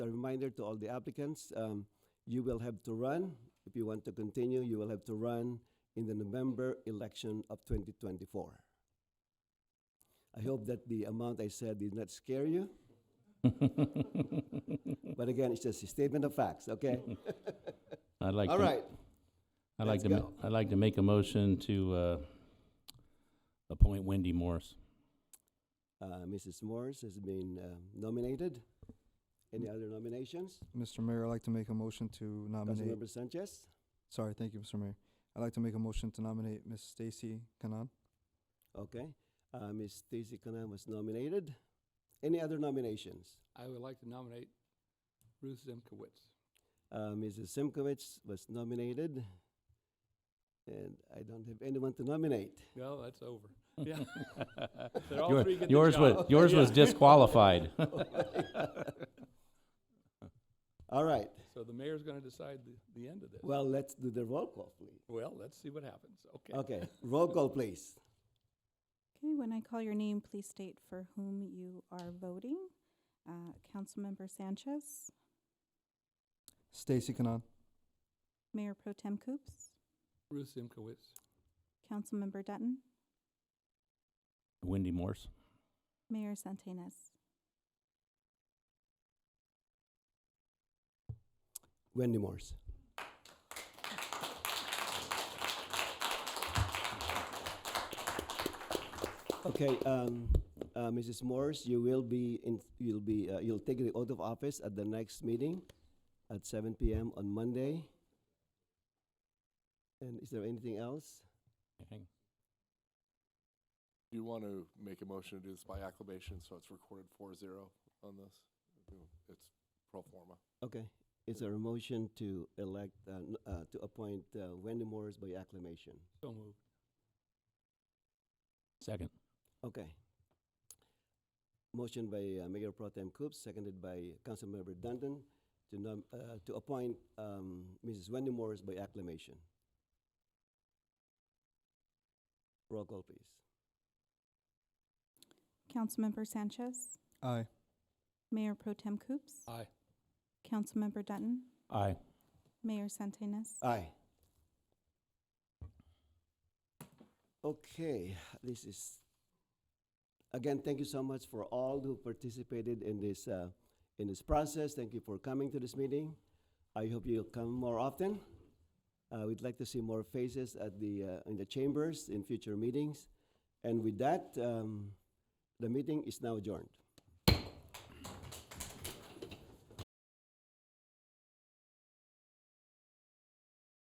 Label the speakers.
Speaker 1: reminder to all the applicants, um, you will have to run, if you want to continue, you will have to run in the November election of 2024. I hope that the amount I said did not scare you. But again, it's just a statement of facts, okay?
Speaker 2: I'd like
Speaker 1: All
Speaker 2: to,
Speaker 1: right,
Speaker 2: I'd like
Speaker 1: let's
Speaker 2: to ma-
Speaker 1: go.
Speaker 2: I'd like to make a motion to uh, appoint Wendy Morris.
Speaker 1: Uh, Mrs. Morris has been uh, nominated. Any other nominations?
Speaker 3: Mr. Mayor, I'd like to make a motion to nominate,
Speaker 1: Councilmember Sanchez?
Speaker 3: sorry, thank you, Mr. Mayor. I'd like to make a motion to nominate Ms. Stacy Kanan.
Speaker 1: Okay, uh, Ms. Stacy Conan was nominated. Any other nominations?
Speaker 4: I would like to nominate Ruth Zimkowitz.
Speaker 1: Uh, Mrs. Simkovich was nominated. And I don't have anyone to nominate.
Speaker 4: No, that's over. Yeah. They're all
Speaker 2: Your-
Speaker 4: three get the
Speaker 2: Yours was,
Speaker 4: job.
Speaker 2: yours was
Speaker 4: Yeah.
Speaker 2: disqualified.
Speaker 1: All right,
Speaker 4: So the mayor's gonna decide the, the end of this.
Speaker 1: well, let's do the roll call, please.
Speaker 4: Well, let's see what happens, okay?
Speaker 1: Okay, roll call, please.
Speaker 5: Okay, when I call your name, please state for whom you are voting. Uh, Councilmember Sanchez,
Speaker 3: Stacy Kanan.
Speaker 5: Mayor Pro Tem Coops,
Speaker 4: Ruth Zimkowitz.
Speaker 5: Councilmember Dutton,
Speaker 2: Wendy Morse.
Speaker 5: Mayor Santenaz.
Speaker 1: Wendy Morse. Okay, um, uh, Mrs. Morse, you will be in, you'll be, uh, you'll take the oath of office at the next meeting at seven PM on Monday. And is there anything else?
Speaker 6: Do you want to make a motion to do this by acclamation, so it's recorded four zero on this? It's pro forma.
Speaker 1: Okay, is there a motion to elect, uh, n- uh, to appoint uh, Wendy Morse by acclamation?
Speaker 4: So moved.
Speaker 2: Second.
Speaker 1: Okay. Motion by uh, Mayor Pro Tem Coops, seconded by Councilmember Dundon to nom- uh, to appoint um, Mrs. Wendy Morris by acclamation. Roll call, please.
Speaker 5: Councilmember Sanchez,
Speaker 3: Aye.
Speaker 5: Mayor Pro Tem Coops,
Speaker 4: Aye.
Speaker 5: Councilmember Dutton,
Speaker 2: Aye.
Speaker 5: Mayor Santenaz.
Speaker 1: Aye. Okay, this is, again, thank you so much for all who participated in this, uh, in this process. Thank you for coming to this meeting. I hope you'll come more often. Uh, we'd like to see more faces at the, uh, in the chambers in future meetings. And with that, um, the meeting is now adjourned.